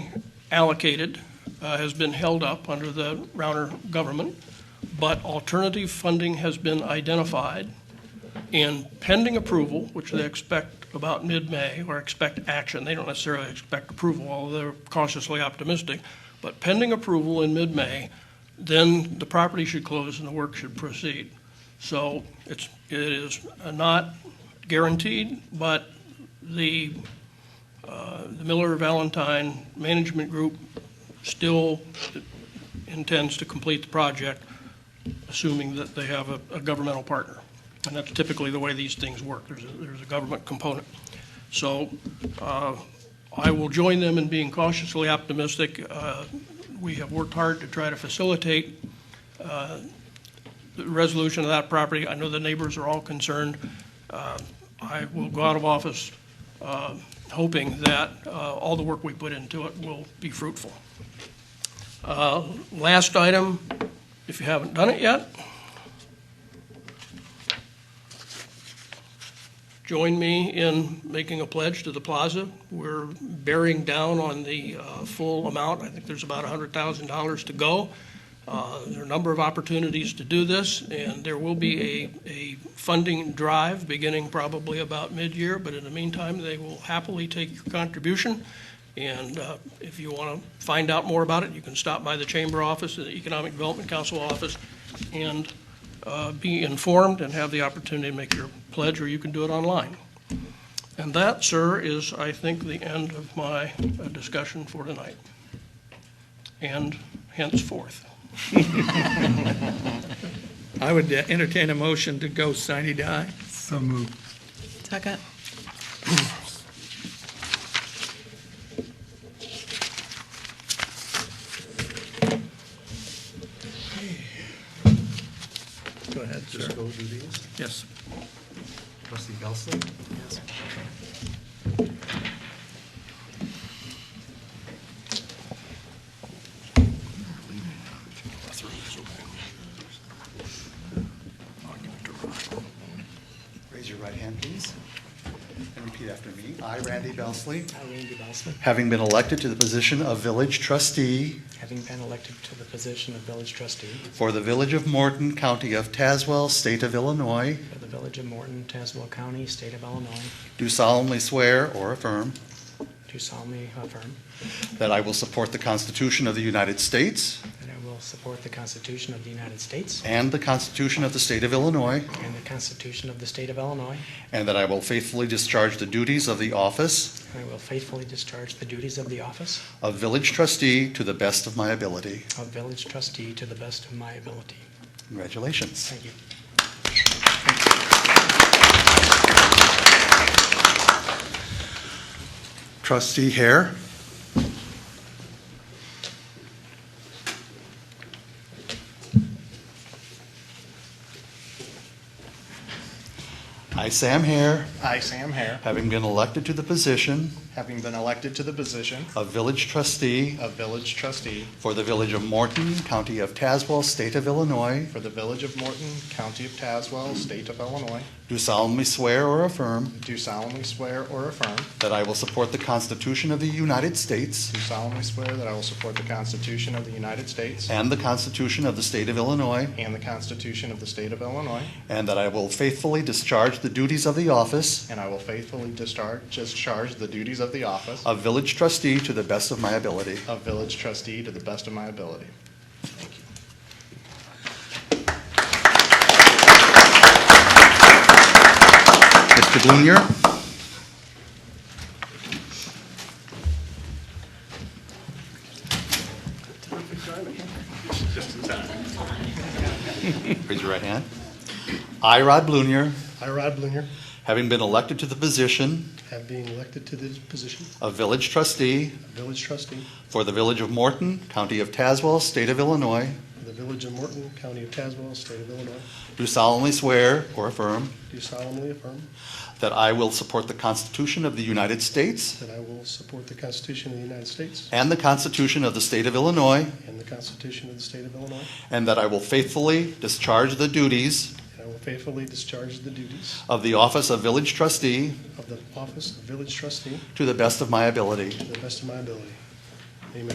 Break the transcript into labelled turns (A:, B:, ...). A: allocated uh, has been held up under the Rauner government, but alternative funding has been identified. And pending approval, which they expect about mid-May, or expect action, they don't necessarily expect approval, although they're cautiously optimistic, but pending approval in mid-May, then the property should close and the work should proceed. So it's, it is not guaranteed, but the the Miller Valentine Management Group still intends to complete the project, assuming that they have a, a governmental partner. And that's typically the way these things work. There's a, there's a government component. So uh, I will join them in being cautiously optimistic. Uh, We have worked hard to try to facilitate uh, the resolution of that property. I know the neighbors are all concerned. Uh, I will go out of office uh, hoping that uh, all the work we put into it will be fruitful. Uh, Last item, if you haven't done it yet, join me in making a pledge to the plaza. We're bearing down on the uh, full amount. I think there's about $100,000 to go. Uh, There are a number of opportunities to do this, and there will be a, a funding drive beginning probably about mid-year, but in the meantime, they will happily take your contribution. And uh, if you want to find out more about it, you can stop by the Chamber office, the Economic Development Council office, and uh, be informed and have the opportunity to make your pledge, or you can do it online. And that, sir, is, I think, the end of my uh, discussion for tonight, and henceforth.
B: I would uh, entertain a motion to go sine die.
C: So moved.
D: Second.
B: Go ahead, sir.
C: Just go do these.
B: Yes.
C: Trustee Gelson? Yes.
E: Raise your right hand, please, and repeat after me. I, Randy Belsley,
F: I, Randy Bousley,
E: having been elected to the position of village trustee
F: having been elected to the position of village trustee
E: for the village of Morton, county of Tazewell, state of Illinois,
F: for the village of Morton, Tazewell County, state of Illinois,
E: do solemnly swear or affirm
F: do solemnly affirm
E: that I will support the Constitution of the United States
F: that I will support the Constitution of the United States
E: and the Constitution of the state of Illinois,
F: and the Constitution of the state of Illinois,
E: and that I will faithfully discharge the duties of the office
F: and I will faithfully discharge the duties of the office
E: of village trustee to the best of my ability.
F: of village trustee to the best of my ability.
E: Congratulations.
F: Thank you.
E: Trustee Hare? I, Sam Hare,
G: I, Sam Hare,
E: having been elected to the position
G: having been elected to the position
E: of village trustee
G: of village trustee
E: for the village of Morton, county of Tazewell, state of Illinois,
G: for the village of Morton, county of Tazewell, state of Illinois,
E: do solemnly swear or affirm
G: do solemnly swear or affirm,
E: that I will support the Constitution of the United States
G: do solemnly swear that I will support the Constitution of the United States
E: and the Constitution of the state of Illinois,
G: and the Constitution of the state of Illinois,
E: and that I will faithfully discharge the duties of the office
G: and I will faithfully discharge, discharge the duties of the office
E: a village trustee to the best of my ability.
G: of village trustee to the best of my ability.
E: Mr. Blunier? Raise your right hand. I, Rod Blunier,
H: I, Rod Blinger,
E: having been elected to the position
H: have been elected to this position
E: of village trustee
H: of village trustee
E: for the village of Morton, county of Tazewell, state of Illinois,
H: for the village of Morton, county of Tazewell, state of Illinois,
E: do solemnly swear or affirm
H: do solemnly affirm
E: that I will support the Constitution of the United States
H: that I will support the Constitution of the United States
E: and the Constitution of the state of Illinois,
H: and the Constitution of the state of Illinois,
E: And that I will faithfully discharge the duties
H: and I will faithfully discharge the duties
E: of the office of village trustee
H: of the office of village trustee
E: to the best of my ability.
H: to the best of my ability.